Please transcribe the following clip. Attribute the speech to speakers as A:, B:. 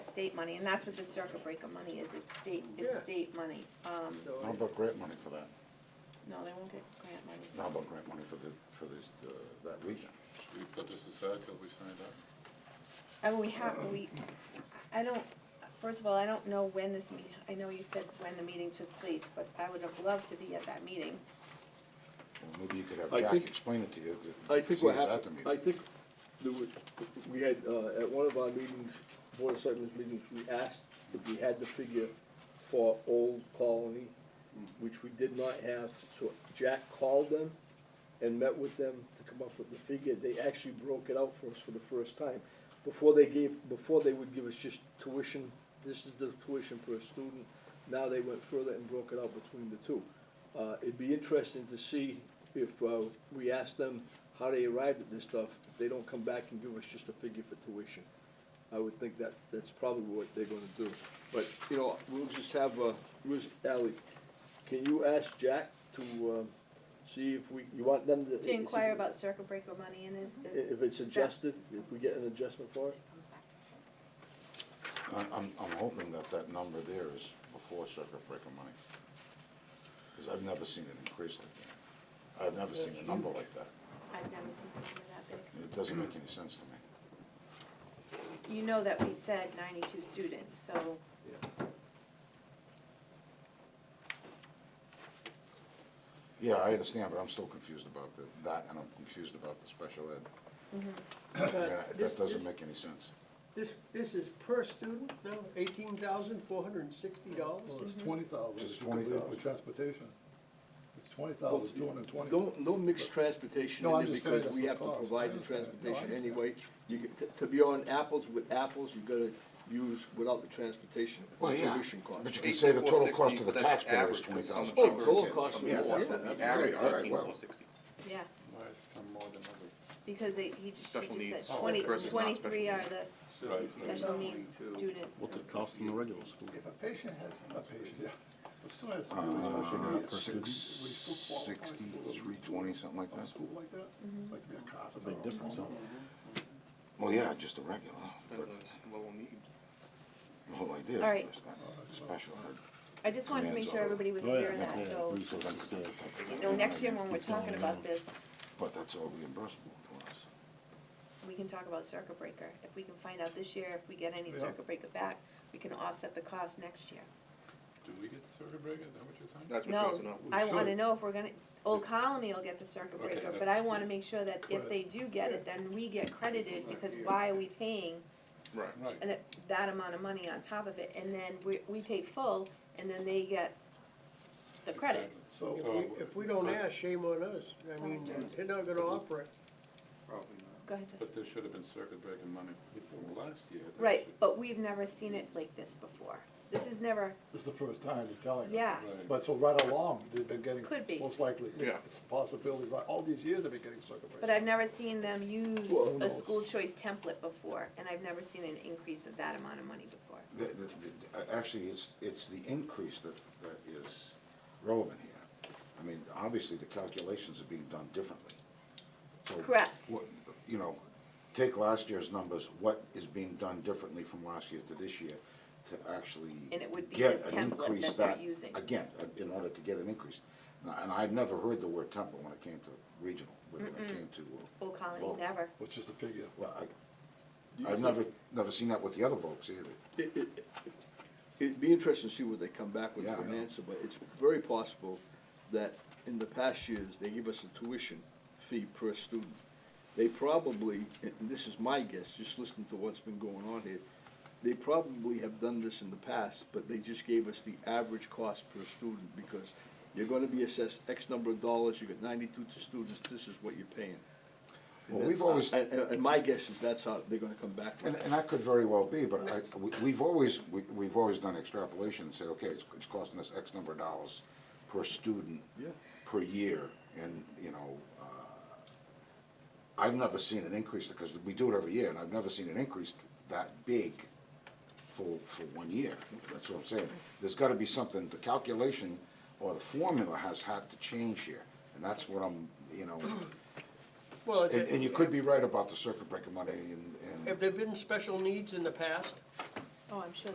A: state money, and that's what the circuit breaker money is, it's state, it's
B: Yeah.
A: state money. Um,
B: So
C: How about grant money for that?
A: no, they won't get grant money.
C: How about grant money for the, for this, uh, that region?
D: Should we put this aside till we find out?
A: I mean, we have, we, I don't, first of all, I don't know when this meet, I know you said when the meeting took place, but I would have loved to be at that meeting.
C: Well, Maybe you could have
B: I
C: Jack
B: think-
C: explain it to you. that-
B: I think
C: see
B: what
C: us at the
B: happened,
C: meeting.
B: I think, there was- we had, uh, at one of our meetings, Board of Selectmen's meetings, we asked if we had the figure for Old Colony, which we did not have, so Jack called them and met with them to come up with the figure, they actually broke it out for us for the first time. Before they gave, before they would give us just tuition, this is the tuition per student, now they went further and broke it out between the two. Uh, it'd be interesting to see if, uh, we ask them how they arrived at this stuff, if they don't come back and give us just a figure for tuition. I would think that, that's probably what they're gonna do. But, you know, we'll just have, uh, where's Ally? Can you ask Jack to, um, see if we, you want them to?
A: To inquire about circuit breaker money and is,
B: i- If it's adjusted, if we get an adjustment for it?
C: I- I'm, I'm hoping that that number there is before circuit breaker money. Because I've never seen it increase like that. I've never seen a number like that.
A: I've never seen anything that big.
C: It doesn't make any sense to me.
A: You know that we said ninety-two students, so.
C: Yeah, I understand, but I'm still confused about the, that, and I'm confused about the special ed.
B: Uh,
C: I mean, I-
E: This-
C: That doesn't
E: this-
C: make any sense.
E: This, this is per student, no, eighteen thousand, four hundred and sixty
F: Well,
E: dollars?
F: it's twenty thousand,
C: Just
F: if you leave
C: 20,000.
F: with transportation. It's twenty thousand, two hundred and twenty.
B: Don't, don't mix transportation
F: No,
B: in
F: I'm
B: there
F: just saying
B: because
F: that's
B: we
F: the
B: have to
F: cost. I
B: provide the
F: understand. No, I
B: transportation
F: understand.
B: anyway. You, get- to- to be on apples with apples, you gotta use without the transportation,
C: Well, yeah,
B: tuition cost.
C: but you can say the total cost to the
G: 18,460, that's
C: taxpayer is
G: average,
C: twenty
G: that's how
C: thousand.
G: much-
B: Oh, total cost of the
C: Yeah,
B: war,
C: that's
B: yeah,
C: what we
B: absolutely.
G: Average,
C: all right,
G: thirteen,
C: well.
G: four sixty.
A: Yeah,
D: Why is some more than others?
A: because they, he just,
G: Special
A: she just
G: needs Oh,
A: said twenty,
G: versus
A: twenty-three are
G: non-special
A: the
D: Right, right.
A: special needs students.
H: What's it cost in the regular school?
F: If a patient has, a patient, yeah. But still has to do this special
C: Uh,
F: needs
C: six,
F: student, would he still qualify
C: sixty,
F: for
C: three twenty, something like
F: A
C: that.
F: school like that,
A: Mm-hmm.
F: like to be a cop.
H: A big difference, huh?
C: Well, yeah, just a regular,
G: That's
C: but
G: a level need.
C: the whole idea
A: All right.
C: was that special ed.
A: I just wanted to make sure everybody was
H: Oh, yeah,
A: clear on
H: yeah,
A: that,
H: yeah,
A: so,
H: three sixty, yeah.
A: you know, next year when we're talking about this,
C: But that's all reimbursable for us.
A: we can talk about circuit breaker. If we can find out this year, if we get any
F: Yeah.
A: circuit breaker back, we can offset the cost next year.
D: Do we get the circuit breaker, is that what you're saying?
G: That's what you
A: No,
G: want to know.
A: I
F: We
A: wanna
F: should.
A: know if we're gonna, Old Colony will get the circuit
D: Okay,
A: breaker,
D: that's-
A: but I wanna make sure that if they do get it, then we get credited, because why are we paying
G: Right.
D: Right,
A: an- that amount of money on top of it, and then we, we pay full, and then they get the credit.
D: exactly.
E: If
F: So,
E: we- If we don't ask, shame on us. I mean, they're not gonna operate.
G: Probably not.
A: Go ahead, Jeff.
D: But there should have been circuit breaker money from last year. That
A: Right,
D: should-
A: but we've never seen it like this before. This is never,
F: this is the first time you're telling us.
A: yeah,
D: Right.
F: But so right along, they've been getting.
A: Could be.
F: Most likely.
G: Yeah.
F: It's a possibility, right, all these years they've been getting circuit breakers.
A: but I've never seen them use
F: Well, who
A: a
F: knows?
A: school choice template before, and I've never seen an increase of that amount of money before.
C: The, the, the, uh, actually, it's, it's the increase that, that is relevant here. I mean, obviously, the calculations are being done differently. So
A: Correct.
C: what- You know, take last year's numbers, what is being done differently from last year to this year to actually
A: And it would be
C: get
A: this
C: an
A: template
C: increase
A: that they're using.
C: Again, uh, in order to get an increase. Now, And I've never heard the word template when it came to regional, when it came to, uh,
A: Old Colony
C: Well,
A: never.
F: Which is the figure.
C: well, I, I've never, never seen that with the other folks either.
B: It, it, it'd be interesting to see what they come back with
C: Yeah,
B: for
C: I
B: an
C: know.
B: answer, but it's very possible that in the past years, they give us a tuition fee per student. They probably, and and this is my guess, just listening to what's been going on here, they probably have done this in the past, but they just gave us the average cost per student, because you're gonna be assessed X number of dollars, you got ninety-two students, this is what you're paying. And
C: Well, we've
B: that's-
C: always-
B: And, and- and my guess is that's how they're gonna come back with
C: And,
B: it.
C: and that could very well be, but I, we- we've always, we, we've always done extrapolation and said, okay, it's, it's costing us X number of dollars per student.
B: Yeah.
C: Per year, and, you know, uh, I've never seen an increase, because we do it every year, and I've never seen an increase that big for, for one year. That's what I'm saying. There's gotta be something, the calculation or the formula has had to change here, and that's what I'm, you know,
E: Well,
C: and, and you could be right about the circuit breaker money and, and.
E: Have there been special needs in the past?
A: Oh, I'm sure